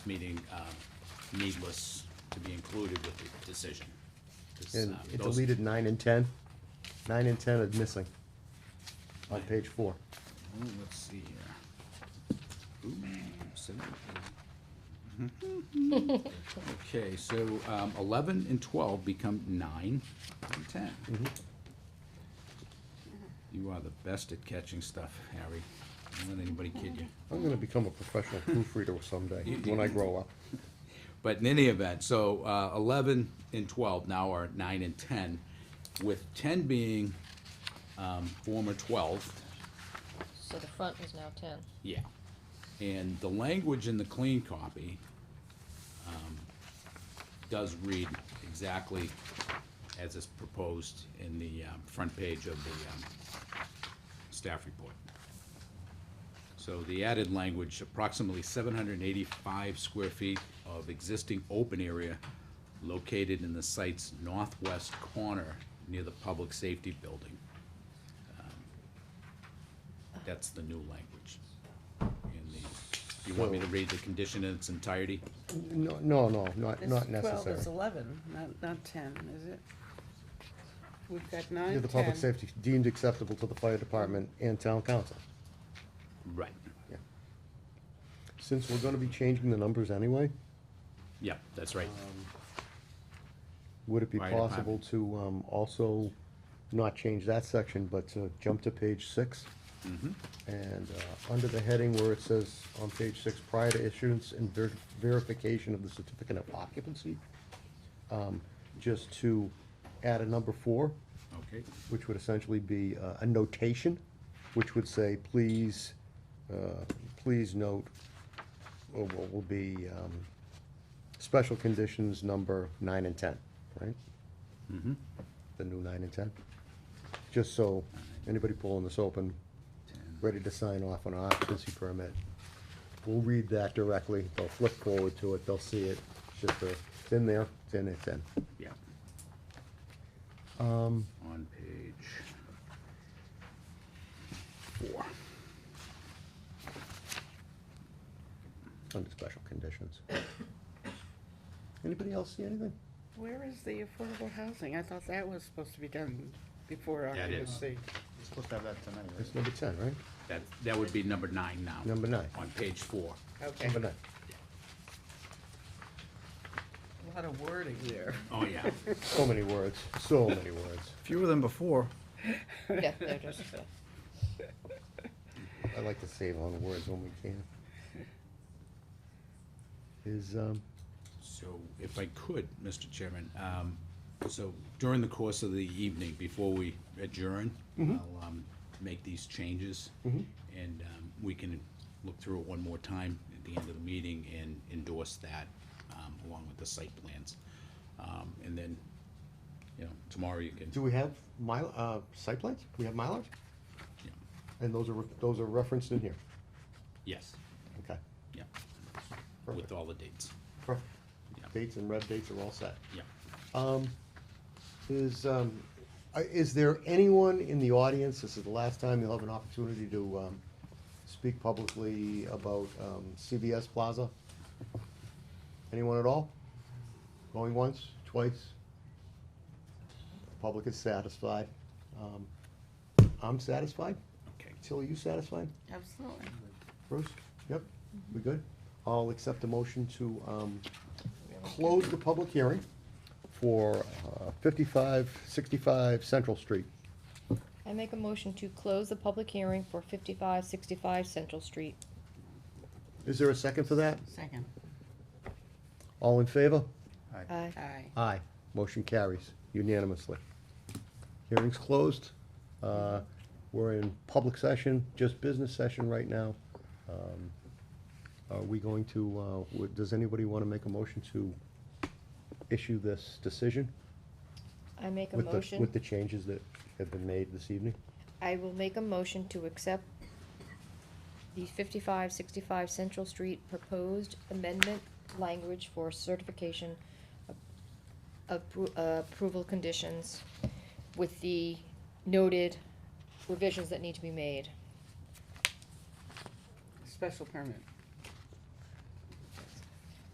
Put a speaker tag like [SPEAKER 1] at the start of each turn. [SPEAKER 1] meeting um, needless to be included with the decision. 'Cause,
[SPEAKER 2] And
[SPEAKER 1] um,
[SPEAKER 2] it
[SPEAKER 1] those-
[SPEAKER 2] deleted nine and ten. Nine and ten is missing on page four.
[SPEAKER 1] Ooh, Oh, Let's see here. Ooh, so- Okay, so um, eleven and twelve become nine and ten.
[SPEAKER 2] Mm-hmm.
[SPEAKER 1] You are the best at catching stuff, Harry. Don't let anybody kid you.
[SPEAKER 2] I'm gonna become a professional proofreader someday, when I grow up.
[SPEAKER 1] But in any event, so uh, 11 and 12 now are 9 and 10, with 10 being um, former 12.
[SPEAKER 3] So the front is now ten.
[SPEAKER 1] Yeah. And the language in the clean copy um, does read exactly as is proposed in the um, front page of the um, staff report. So the added language, approximately 785 square feet of existing open area located in the site's northwest corner near the public safety building. Um, That's the new language. in the- You want me to read the condition in its entirety?
[SPEAKER 2] No, no, no, not,
[SPEAKER 4] This
[SPEAKER 2] not
[SPEAKER 4] Twelve
[SPEAKER 2] necessary.
[SPEAKER 4] is eleven, not, not ten, is it? We've got
[SPEAKER 2] Near
[SPEAKER 4] nine,
[SPEAKER 2] the public
[SPEAKER 4] ten.
[SPEAKER 2] safety deemed acceptable to the fire department and town council.
[SPEAKER 1] Right.
[SPEAKER 2] Yeah. Since we're gonna be changing the numbers anyway,
[SPEAKER 1] Yeah, that's right.
[SPEAKER 2] would it be
[SPEAKER 1] Fire
[SPEAKER 2] possible to, um, also not change that section, but to jump to page six?
[SPEAKER 1] Mm-hmm.
[SPEAKER 2] And, uh, under the heading where it says on page six, prior to issuance and ver- verification of the certificate of occupancy, um, just to add a number four,
[SPEAKER 1] Okay,
[SPEAKER 2] which would essentially be uh, a notation, which would say, please, uh, please note, or what will be um, special conditions number nine and ten, right? Mm-hmm. The new nine and ten, just so anybody pulling this open, ready to sign off on an occupancy permit, we'll read that directly, they'll flip forward to it, they'll see it, it's just, a- it's in there, it's in, it's in.
[SPEAKER 1] yeah.
[SPEAKER 2] Um,
[SPEAKER 1] on page four.
[SPEAKER 2] under special conditions. Anybody else see anything?
[SPEAKER 4] Where is the affordable housing? I thought that was supposed to be done before
[SPEAKER 1] Yeah, it is.
[SPEAKER 4] occupancy.
[SPEAKER 5] We're supposed to have that tonight, right?
[SPEAKER 2] That's number ten, right?
[SPEAKER 1] That, that would be number nine now.
[SPEAKER 2] Number nine.
[SPEAKER 1] On page four.
[SPEAKER 4] Okay,
[SPEAKER 2] Number nine.
[SPEAKER 4] a lot of wording there.
[SPEAKER 1] Oh, yeah.
[SPEAKER 2] So many words, so many words.
[SPEAKER 5] Fewer than before.
[SPEAKER 3] Yeah, they're just, yeah.
[SPEAKER 2] I like to save on words when we can. Is, um,
[SPEAKER 1] So if I could, Mr. Chairman, um, so during the course of the evening, before we adjourn,
[SPEAKER 2] Mm-hmm.
[SPEAKER 1] I'll, um, make these changes. And, um, we can look through it one more time at the end of the meeting and endorse that, um, along with the site plans. Um, and then, you know, tomorrow you can,
[SPEAKER 2] do we have my, uh, site plans? We have mileage?
[SPEAKER 1] yeah.
[SPEAKER 2] And those are, re- those are referenced in here?
[SPEAKER 1] yes,
[SPEAKER 2] Okay,
[SPEAKER 1] yeah, with
[SPEAKER 2] perfect,
[SPEAKER 1] all the dates.
[SPEAKER 2] perfect.
[SPEAKER 1] Yeah.
[SPEAKER 2] Dates and rev dates are all set.
[SPEAKER 1] Yeah.
[SPEAKER 2] Um, is, um, uh, is there anyone in the audience, this is the last time you'll have an opportunity to, um, speak publicly about, um, CVS Plaza? Anyone at all? Going once, twice? Public is satisfied. Um, I'm satisfied.
[SPEAKER 1] Okay.
[SPEAKER 2] Tilly, you satisfied?
[SPEAKER 4] Absolutely.
[SPEAKER 2] Bruce? Yep, we good? I'll accept a motion to, um, close the public hearing for uh, fifty-five, sixty-five Central Street.
[SPEAKER 3] I make a motion to close the public hearing for fifty-five sixty-five Central Street.
[SPEAKER 2] Is there a second for that?
[SPEAKER 4] Second.
[SPEAKER 2] All in favor?
[SPEAKER 3] Aye.
[SPEAKER 4] Aye.
[SPEAKER 2] Aye. Motion carries unanimously. Hearing's closed. Uh, we're in public session, just business session right now. Um, Are we going to, uh, would- does anybody wanna make a motion to issue this decision?
[SPEAKER 3] I make a
[SPEAKER 2] With the,
[SPEAKER 3] motion,
[SPEAKER 2] with the changes that have been made this evening?
[SPEAKER 3] I will make a motion to accept the fifty-five sixty-five Central Street proposed amendment language for certification of- of appro- uh, approval conditions with the noted revisions that need to be made.
[SPEAKER 4] Special permit.